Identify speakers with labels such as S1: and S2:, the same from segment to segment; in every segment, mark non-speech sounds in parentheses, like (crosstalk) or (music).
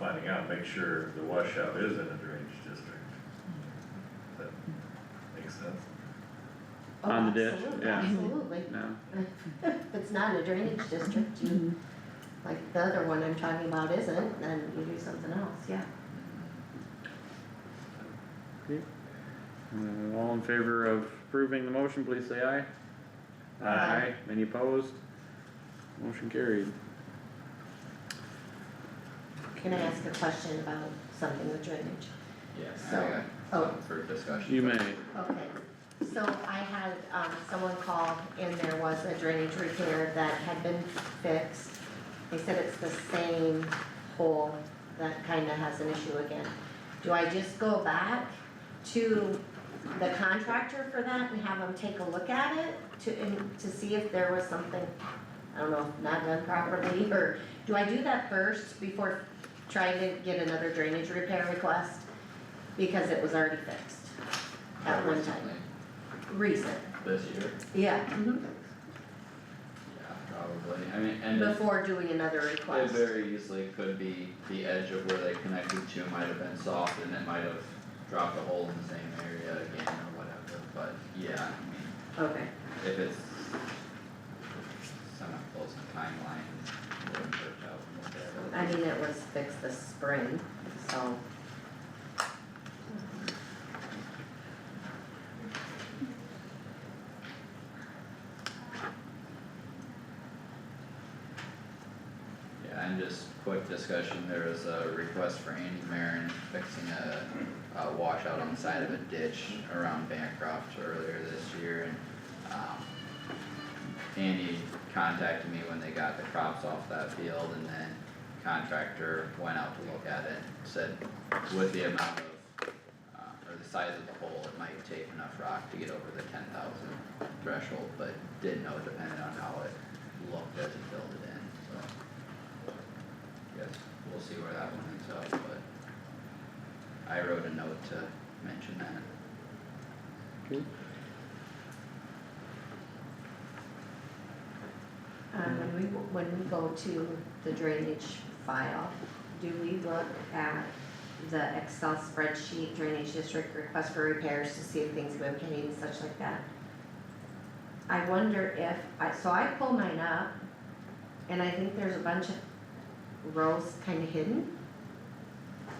S1: wanna make sure the washout is in a drainage district. That makes sense.
S2: Oh,
S3: On the ditch,
S2: absolutely,
S3: yeah.
S2: Absolutely,
S3: no,
S2: if it's not a drainage district, you, like the other one I'm talking about isn't, then you do something else, yeah.
S3: Uh, all in favor of approving the motion, please say aye.
S1: Aye.
S3: Any opposed? Motion carried.
S2: Can I ask a question about something with drainage?
S4: Yes,
S2: So-
S4: I
S2: oh.
S4: got some for discussion.
S3: You
S4: but-
S3: may.
S2: Okay, so I had, um, someone call and there was a drainage repair that had been fixed. They said it's the same hole that kinda has an issue again. Do I just go back to the contractor for that and have them take a look at it to, and to see if there was something, I don't know, not done properly? (laughs) Or do I do that first before trying to get another drainage repair request? Because it was already fixed at one time,
S4: Recently,
S2: recent,
S4: This year,
S2: yeah,
S4: yeah, probably, I mean, and it-
S2: before doing another
S4: it
S2: request.
S4: very easily could be the edge of where they connected to might have been soft and it might have dropped a hole in the same area again or whatever, but yeah, I mean,
S2: Okay,
S4: if it's somehow close to timeline, it wouldn't work out, whatever.
S2: I mean, it was fixed this spring, so.
S4: Yeah, and just quick discussion, there was a request for Andy Marin fixing a, a washout on the side of a ditch around Bancroft earlier this year and, um. Andy contacted me when they got the crops off that field and then contractor went out to look at it, said with the amount of, uh, or the size of the hole, it might take enough rock to get over the ten thousand threshold, but didn't know it depended on how it looked as he filled it in, so. Yes, we'll see where that one ends up, but I wrote a note to mention that.
S2: Um, when we, when we go to the drainage file, do we look at the Excel spreadsheet drainage district request for repairs to see if things have been paid and such like that? I wonder if, I, so I pull mine up, and I think there's a bunch of rows kinda hidden.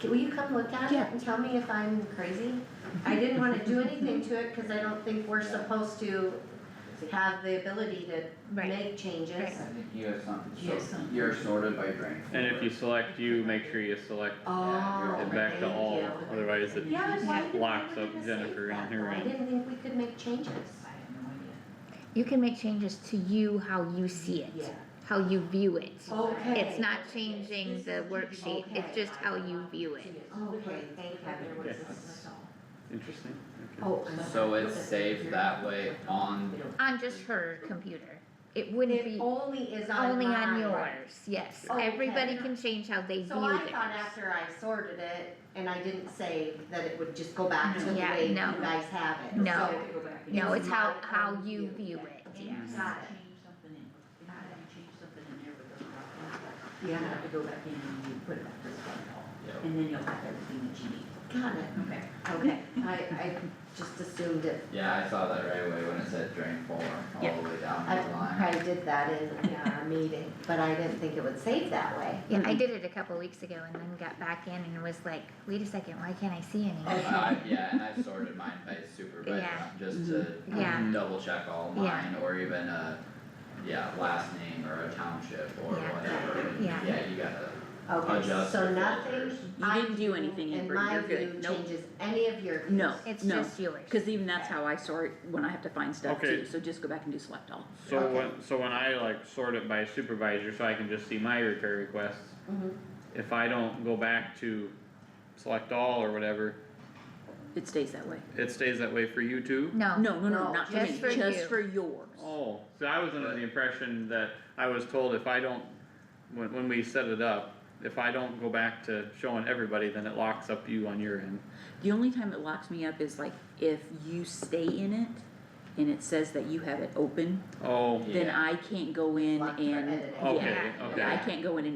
S2: Can, will you come look at it
S5: Yeah.
S2: and tell me if I'm crazy? I didn't wanna do anything to it, cause I don't think we're supposed to have the ability to
S5: Right,
S2: make changes.
S5: Right.
S4: I think you have something,
S5: You have something.
S4: you're sorted by drain.
S3: And if you select you, make sure you select
S2: Oh,
S3: it
S2: thank
S3: back to all,
S2: you.
S3: otherwise it,
S2: Yeah, but why
S3: Yeah.
S2: did we make
S3: locks
S2: a
S3: up
S2: mistake
S3: Jennifer in
S2: that
S3: her
S2: way? I
S3: end.
S2: didn't think we could make changes.
S5: You can make changes to you how you see it, how you view it.
S2: Okay.
S5: It's not changing the worksheet, it's just how you view it.
S2: Okay, thank heaven.
S3: Okay. interesting, okay.
S2: Oh, I'm
S4: So
S2: sorry.
S4: it's saved that way on,
S5: On just her computer. It wouldn't
S2: It
S5: be
S2: only is on
S5: only on
S2: mine.
S5: yours, yes.
S2: Okay.
S5: Everybody can change how they view
S2: So I thought
S5: theirs.
S2: after I sorted it and I didn't save that it would just go back to the
S5: Yeah,
S2: way you
S5: no.
S2: guys have it, so.
S5: No.
S6: oh,
S5: No,
S2: it's
S5: it's how,
S2: my
S5: how
S2: own
S5: you
S2: view.
S5: view it,
S6: And you
S5: yes.
S6: can change something in, if you change something in there with the problem, you
S2: Yeah,
S6: have to go back in and you put it back to the front wall.
S4: Yep.
S6: And then you'll have everything that you need.
S2: got it,
S6: Okay.
S2: okay, I, I just assumed it,
S4: yeah, I saw that right away when it said drain four, all
S5: Yep.
S4: the way down
S2: I
S4: the line.
S2: probably did that in, yeah, a meeting, but I didn't think it would save that way.
S5: Yeah, I did it a couple weeks ago and then got back in and was like, wait a second, why can't I see (laughs) anything?
S4: Uh, yeah, and I sorted mine by super by
S5: Yeah. Mm-hmm.
S4: drum, just to
S5: Yeah.
S4: double check all
S5: Yeah.
S4: mine, or even a, yeah, last name or a township or
S5: Yeah.
S4: whatever, and
S5: Yeah.
S4: yeah, you gotta,
S2: Okay,
S4: Adjust
S2: so
S4: your
S2: nothing,
S4: filters.
S7: You
S2: I,
S7: didn't do anything,
S2: in
S7: Amber,
S2: my
S7: you're
S2: view,
S7: good, nope,
S2: changes any of your.
S7: no,
S5: It's
S7: no.
S5: just yours.
S7: Cause even that's how I sort when I have to find stuff
S3: Okay.
S7: too, so just go back and do select all.
S3: So
S2: Okay.
S3: when, so when I like sort it by supervisor, so I can just see my repair requests,
S7: Mm-hmm.
S2: Mhm.
S3: if I don't go back to select all or whatever,
S7: It stays that way.
S3: it stays that way for you too?
S6: Oh,
S5: No.
S7: No, no,
S2: No,
S7: no, not for
S5: just
S7: me,
S5: for
S7: just
S5: you.
S7: for yours.
S3: Oh, so I was under the impression that I was told if I don't, when, when we set it up, if I don't go back to showing everybody, then it locks up you on your end.
S7: The only time it locks me up is like if you stay in it and it says that you have it open,
S3: Oh,
S7: then
S4: Yeah.
S7: I can't go in
S2: Lock for
S7: and,
S2: editing.
S7: yeah,
S3: okay,
S5: Yeah.
S3: okay.
S7: I can't go in and